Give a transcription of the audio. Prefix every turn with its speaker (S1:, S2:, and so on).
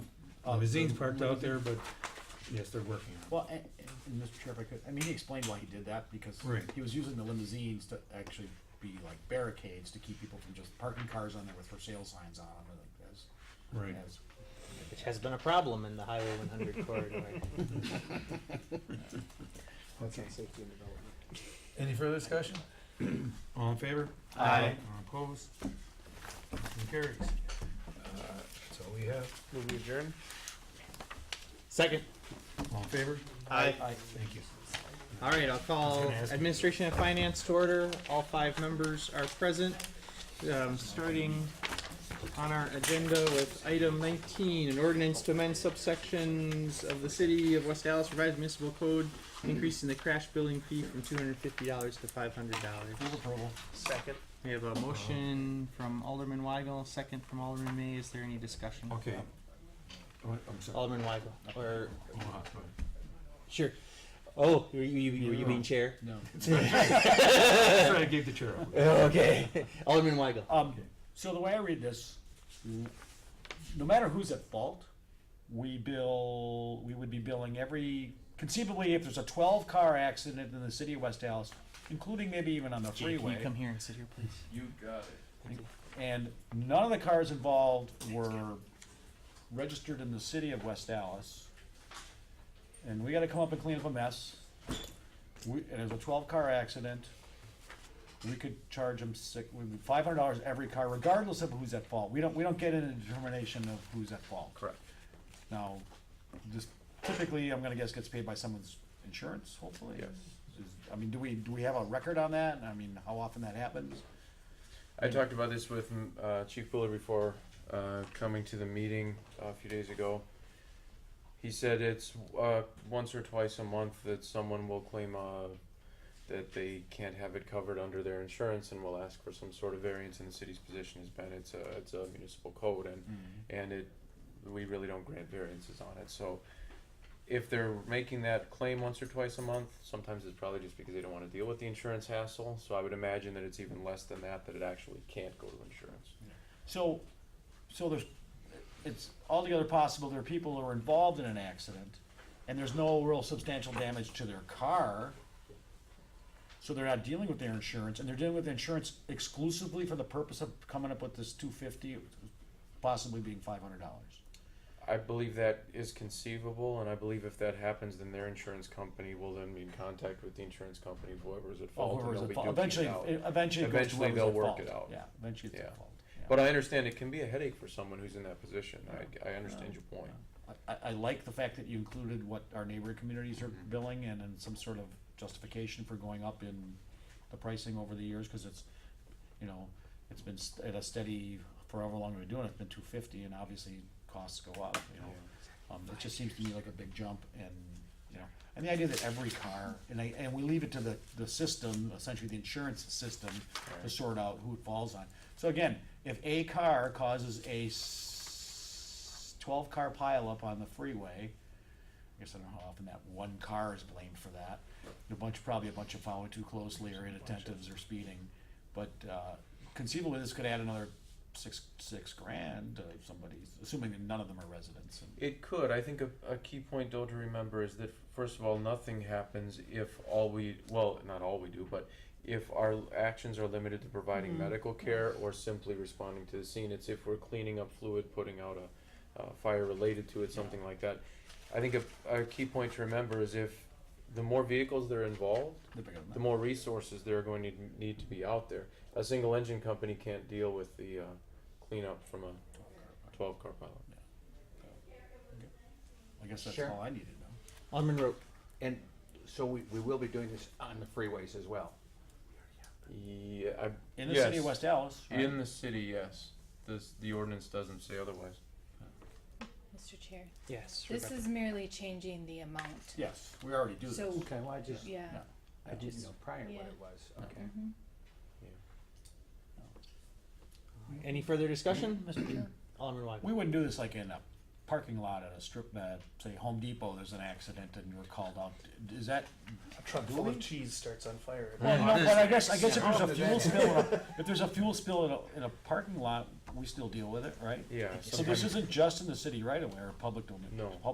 S1: Uh, the zine's parked out there, but yes, they're working on
S2: Well, and, and Mr. Chair, if I could, I mean, he explained why he did that, because
S1: Right.
S2: he was using the limousines to actually be like barricades to keep people from just parking cars on there with for sale signs on them, like as,
S1: it. Right.
S2: as.
S3: which has been a problem in the Highway 100 corridor.
S2: Okay.
S3: Safety and development.
S4: Any further discussion?
S1: All in favor?
S3: Aye.
S1: All opposed? Motion carries.
S4: That's all we have.
S3: Move we adjourn. Second.
S1: All in favor?
S3: Aye.
S1: Thank you.
S3: All right, I'll
S1: I was
S3: call
S1: gonna ask-
S3: Administration and Finance to order. All five members are present. Um, starting on our agenda with item nineteen, an ordinance to amend subsections of the city of West Dallas revised municipal code, increasing the crash billing fee from two hundred and fifty dollars to five hundred dollars.
S2: Move approval.
S4: Second.
S3: We have a motion from Alderman Weigel, second from Alderman May. Is there any discussion?
S1: Okay. Oh, I'm sorry.
S3: Alderman Weigel, or,
S1: Hold on, sorry.
S3: sure. Oh, were you, you- were you being chair?
S2: No.
S1: That's right, I gave the chair up.
S3: Okay. Alderman Weigel.
S2: Um, so the way I read this, n- no matter who's at fault, we bill, we would be billing every, conceivably, if there's a twelve car accident in the city of West Dallas, including maybe even on the
S3: Jay, can
S2: freeway.
S3: you come here and sit here, please?
S5: You got it.
S2: and none of the cars involved were registered in the city of West Dallas. And we gotta come up and clean up a mess. We, and it was a twelve car accident. We could charge them six, five hundred dollars every car regardless of who's at fault. We don't, we don't get into determination of who's at fault.
S5: Correct.
S2: Now, this typically, I'm gonna guess gets paid by someone's insurance, hopefully.
S5: Yes.
S2: Is- I mean, do we, do we have a record on that? I mean, how often that happens?
S5: I talked about this with mm, uh, Chief Buller before uh, coming to the meeting a few days ago. He said it's uh, once or twice a month that someone will claim uh, that they can't have it covered under their insurance and will ask for some sort of variance. And the city's position has been it's a it's a municipal code and and it we really don't grant variances on it. So if they're making that claim once or twice a month, sometimes it's probably just because they don't want to deal with the insurance hassle. So I would imagine that it's even less than that that it actually can't go to insurance.
S2: So, so there's, it's altogether possible there are people who are involved in an accident, and there's no real substantial damage to their car, so they're not dealing with their insurance, and they're dealing with insurance exclusively for the purpose of coming up with this two fifty, possibly being five hundred dollars.
S5: I believe that is conceivable, and I believe if that happens, then their insurance company will then be in contact with the insurance company of whoever's at fault, and Oh, they'll be duking
S2: Eventually,
S5: it out.
S2: eventually it goes to
S5: Eventually
S2: whoever's
S5: they'll
S2: at
S5: work
S2: fault.
S5: it out.
S2: Yeah, eventually it's
S5: Yeah.
S2: at fault. yeah.
S5: But I understand it can be a headache for someone who's in that position. I, I understand your point.
S2: I, I- I like the fact that you included what our neighboring communities are billing and, and some sort of justification for going up in the pricing over the years, cause it's, you know, it's been st- at a steady, for however long we've been doing it, it's been two fifty, and obviously costs go up, you know? Um, it just seems to me like a big jump, and, you know, and the idea that every car, and I, and we leave it to the, the system, essentially the insurance system, to
S5: Right.
S2: sort out who it falls on. So again, if a car causes a s- twelve-car pileup on the freeway, I guess I don't know how often that one car is blamed for that. A bunch, probably a bunch of following too closely or inattentives or speeding. But uh, conceivably, this could add another six, six grand uh, if somebody's, assuming that none of them are residents. And
S5: It could. I think a, a key point though to remember is that first of all, nothing happens if all we well, not all we do, but if our actions are limited to providing medical care or simply responding to the scene. It's if we're cleaning up fluid, putting out a, uh fire related to it, something like that. I think a, a key point to remember is if the more vehicles that are involved,
S2: the bigger
S5: the
S2: the
S5: more resources there are going to need to be out there. A single engine company can't deal with the uh, cleanup from a twelve car pilot.
S2: I guess that's
S6: Sure.
S2: all I need to know.
S3: Alderman Root.
S6: And so we, we will be doing this on the freeways as well.
S5: Yeah, I,
S2: In the
S5: yes.
S2: city of West Dallas, right?
S5: In the city, yes. This, the ordinance doesn't say otherwise.
S7: Mr. Chair,
S3: Yes.
S7: this is merely changing the amount.
S2: yes, we already do this.
S7: So,
S6: Okay, well, I just,
S7: yeah,
S2: Yeah.
S6: I didn't know prior what
S7: Yeah.
S6: it was, okay.
S3: Any further discussion?
S2: Mr. Chair.
S3: Alderman Weigel.
S2: We wouldn't do this like in a parking lot at a strip, uh, say Home Depot, there's an accident and you're called out. Is that
S4: A truck full of cheese starts on fire.
S2: Well, no, but I guess, I guess if
S6: Yeah.
S2: there's a fuel spill, in a- if there's a fuel spill in a, in a parking lot, we still deal with it, right?
S5: Yeah.
S2: So this
S5: sometimes-
S2: isn't just in the city right away or public domain?
S5: No.